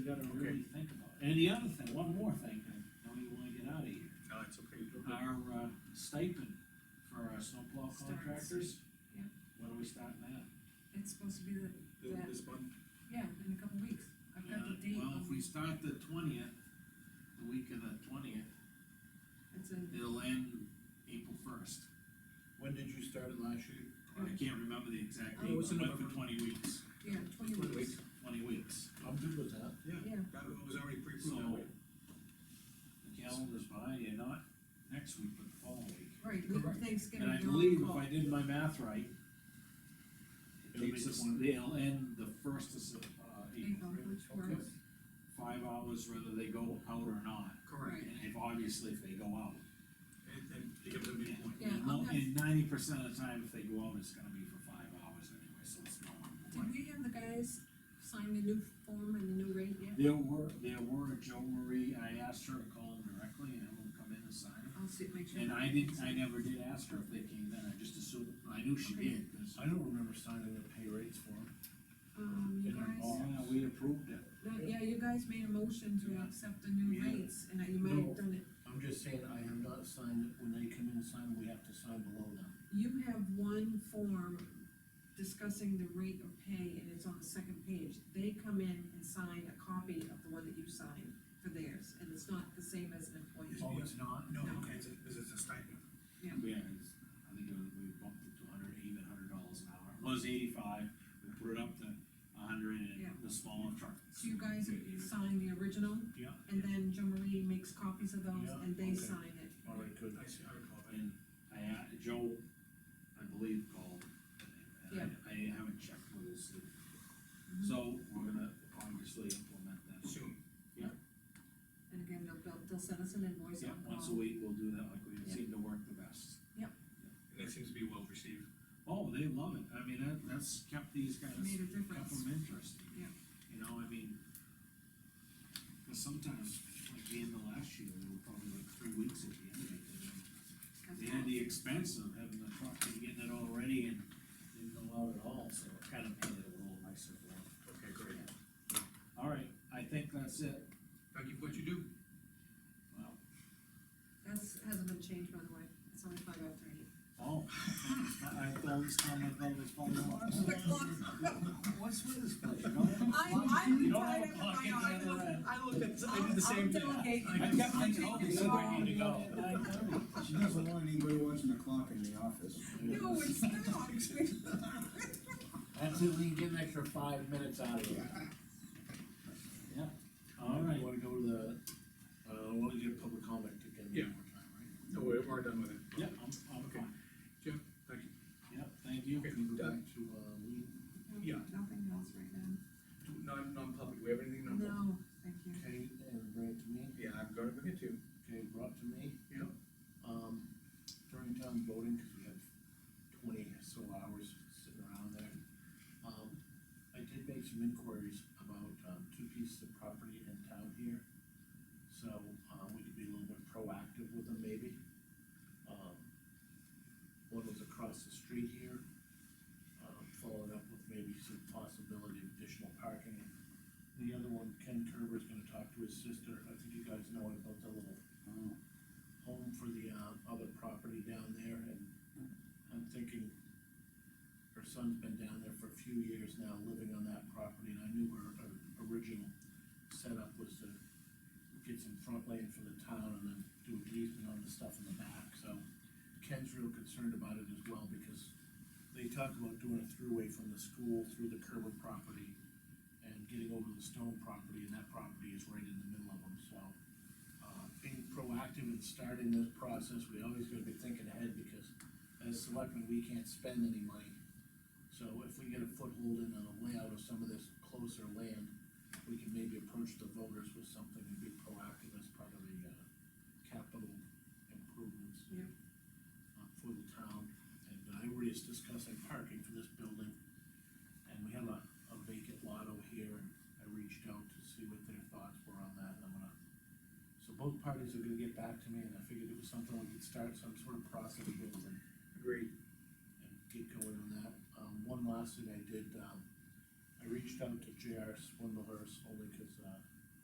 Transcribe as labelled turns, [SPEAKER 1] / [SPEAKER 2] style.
[SPEAKER 1] You gotta really think about it. And the other thing, one more thing, I know you wanna get out of here.
[SPEAKER 2] No, it's okay.
[SPEAKER 1] Our uh, stipend for our snowplow
[SPEAKER 3] Starts.
[SPEAKER 1] contractors.
[SPEAKER 3] Yeah.
[SPEAKER 1] When are we starting that?
[SPEAKER 3] It's supposed to be the,
[SPEAKER 2] Th-
[SPEAKER 3] that,
[SPEAKER 2] This month,
[SPEAKER 3] yeah, in a couple weeks, I've got the
[SPEAKER 1] Yeah, Uh,
[SPEAKER 3] date,
[SPEAKER 1] Well, if
[SPEAKER 3] on-
[SPEAKER 1] we start the twentieth, the week of the twentieth,
[SPEAKER 3] it's in,
[SPEAKER 1] it'll end April first.
[SPEAKER 4] When did you start it last year?
[SPEAKER 1] I can't remember the exact
[SPEAKER 3] Oh,
[SPEAKER 1] date,
[SPEAKER 2] it's in
[SPEAKER 1] but went for
[SPEAKER 2] November.
[SPEAKER 1] twenty weeks,
[SPEAKER 3] yeah, twenty
[SPEAKER 2] Twenty
[SPEAKER 3] weeks,
[SPEAKER 1] twenty weeks.
[SPEAKER 4] I'm good with that.
[SPEAKER 2] yeah,
[SPEAKER 3] yeah,
[SPEAKER 2] that was already
[SPEAKER 1] So,
[SPEAKER 2] pre-approved that way.
[SPEAKER 1] the calendar's behind you, not next week, but the following week.
[SPEAKER 3] right, with
[SPEAKER 2] Correct.
[SPEAKER 3] Thanksgiving.
[SPEAKER 1] And I
[SPEAKER 3] you're on
[SPEAKER 1] believe if
[SPEAKER 3] call.
[SPEAKER 1] I did my math right, it
[SPEAKER 4] It'll
[SPEAKER 1] takes
[SPEAKER 4] be
[SPEAKER 1] us,
[SPEAKER 4] the one-
[SPEAKER 1] they'll end the first of, Sep- uh, April,
[SPEAKER 3] April, which
[SPEAKER 4] Okay.
[SPEAKER 3] works,
[SPEAKER 1] five hours whether they go out or not.
[SPEAKER 2] Correct,
[SPEAKER 3] Right.
[SPEAKER 1] And if, obviously, if they go out.
[SPEAKER 2] and, and it gives a midpoint.
[SPEAKER 3] Yeah,
[SPEAKER 1] And
[SPEAKER 3] I'll
[SPEAKER 1] mo-
[SPEAKER 3] have-
[SPEAKER 1] And ninety percent of the time, if they go out, it's gonna be for five hours anyway, so it's not.
[SPEAKER 3] did we have the guys sign the new form and the new rate yet?
[SPEAKER 1] There were, there were Joe Marie, I asked her to call them directly and have them come in and sign them.
[SPEAKER 3] I'll see, make sure.
[SPEAKER 1] And I didn't, I never did ask her if they came then, I just assumed, I knew she
[SPEAKER 3] Okay.
[SPEAKER 1] did, 'cause-
[SPEAKER 4] I don't remember signing the pay rates for them.
[SPEAKER 3] Um, you
[SPEAKER 4] And I'm
[SPEAKER 3] guys,
[SPEAKER 1] Oh, yeah, we approved it.
[SPEAKER 3] no, yeah, you guys made a motion to
[SPEAKER 1] Yeah.
[SPEAKER 3] accept the new
[SPEAKER 1] Yeah.
[SPEAKER 3] rates, and you might
[SPEAKER 4] No.
[SPEAKER 3] have done it,
[SPEAKER 4] I'm just saying, I have not signed it, when they come in and sign, we have to sign below them.
[SPEAKER 3] you have one form discussing the rate of pay, and it's on the second page, they come in and sign a copy of the one that you signed for theirs, and it's not the same as an employee.
[SPEAKER 2] Oh, it's
[SPEAKER 4] not?
[SPEAKER 2] No,
[SPEAKER 3] No.
[SPEAKER 2] it's, a- this is a stipend.
[SPEAKER 1] Yeah, it's- I think it was- we bumped it to hundred, even hundred dollars an hour, it was eighty-five, we put it up to hundred
[SPEAKER 3] Yeah.
[SPEAKER 1] and the smaller truck.
[SPEAKER 3] So you guys sign the original,
[SPEAKER 1] Yeah.
[SPEAKER 3] and then Jo Marie makes copies of those,
[SPEAKER 4] Yeah,
[SPEAKER 3] and they
[SPEAKER 4] okay.
[SPEAKER 3] sign it.
[SPEAKER 4] All right, good.
[SPEAKER 2] I see, I recall that.
[SPEAKER 1] And I, a- Joe, I believe, called, and I, I haven't checked with his, uh,
[SPEAKER 3] Mm-hmm.
[SPEAKER 1] so we're gonna obviously implement that.
[SPEAKER 2] Soon,
[SPEAKER 3] And again, they'll, they'll, they'll send us an invoice
[SPEAKER 1] Yeah,
[SPEAKER 3] on
[SPEAKER 1] once a
[SPEAKER 3] call.
[SPEAKER 1] week, we'll do that, like we
[SPEAKER 3] Yeah.
[SPEAKER 1] seem to work the best.
[SPEAKER 2] and that seems to be well received.
[SPEAKER 1] Oh, they love it, I mean, that, that's kept these guys.
[SPEAKER 3] Made a
[SPEAKER 1] kept
[SPEAKER 3] difference.
[SPEAKER 1] them interested.
[SPEAKER 3] Yeah.
[SPEAKER 1] You know, I mean, cause sometimes, like the end of last year, they were probably like three weeks at the end of it. and They had the expense of having the truck and getting it all ready and didn't allow it all, so it kind of made it a little nicer for them.
[SPEAKER 2] Okay, great.
[SPEAKER 1] All right, I think that's it.
[SPEAKER 2] Thank you for what you do.
[SPEAKER 1] Well,
[SPEAKER 3] That's, hasn't been changed, by the way, it's only five after eight.
[SPEAKER 1] Oh, I I thought this time, I thought it was falling off. What's with this place, you know?
[SPEAKER 3] I,
[SPEAKER 1] You
[SPEAKER 3] I'm
[SPEAKER 1] don't have a
[SPEAKER 3] tied up in
[SPEAKER 1] clock in
[SPEAKER 3] my
[SPEAKER 1] there,
[SPEAKER 3] office.
[SPEAKER 1] uh,
[SPEAKER 2] I looked at,
[SPEAKER 3] I did the same thing. I'll- I'll delegate.
[SPEAKER 1] I kept thinking, oh, this is where I need to go.
[SPEAKER 3] I'll
[SPEAKER 1] Nine thirty.
[SPEAKER 5] She doesn't want anybody watching the clock in the office.
[SPEAKER 3] No, it's not.
[SPEAKER 4] That's if we can get an extra five minutes out of it.
[SPEAKER 1] All right,
[SPEAKER 4] Um, You wanna go to the, uh, wanna get public comment again? one
[SPEAKER 2] Yeah.
[SPEAKER 4] more time, right?
[SPEAKER 2] No, we're, we're done with it.
[SPEAKER 1] yep, I'm, I'm
[SPEAKER 2] Okay.
[SPEAKER 1] fine.
[SPEAKER 2] Jim, thank you.
[SPEAKER 1] Yep, thank you.
[SPEAKER 2] Okay.
[SPEAKER 4] Can we go
[SPEAKER 2] Done.
[SPEAKER 4] back to, uh, Lee?
[SPEAKER 2] Yeah.
[SPEAKER 3] Nothing else right now.
[SPEAKER 2] Do- Non, non-public, we have anything non-public?
[SPEAKER 3] No, thank you.
[SPEAKER 4] Okay, and bring it to me,
[SPEAKER 2] Yeah, I'm gonna bring it to you.
[SPEAKER 4] okay, brought to me.
[SPEAKER 2] Yeah.
[SPEAKER 4] Um, during town voting, cause we have twenty or so hours sitting around there. Um, I did make some inquiries about, um, two pieces of property in town here. So, um, we could be a little bit proactive with them maybe. Um, one was across the street here, um, followed up with maybe some possibility of additional parking. The other one, Ken Kerber's gonna talk to his sister, I think you guys know about the little home for the, uh, other property down there, and I'm thinking her son's been down there for a few years now, living on that property, and I knew her, her original setup was to get some front land for the town and then do an easement on the stuff in the back, so Ken's real concerned about it as well, because they talk about doing a throughway from the school through the Kerber property and getting over the Stone property, and that property is right in the middle of them, so uh, being proactive and starting this process, we always gotta be thinking ahead, because as selectmen, we can't spend any money. So if we get a foothold in on the layout of some of this closer land, we can maybe approach the voters with something and be proactive as part of the, uh, capital improvements.
[SPEAKER 3] Yep.
[SPEAKER 4] uh, for the town, and I already is discussing parking for this building, and we have a, a vacant lot over here, and I reached out to see what their thoughts were on that, and I'm gonna so both parties are gonna get back to me, and I figured it was something we could start some sort of process with and,
[SPEAKER 2] Agreed.
[SPEAKER 4] and get going on that. Um, one last thing I did, um, I reached out to J R Swindlehurst only because, uh,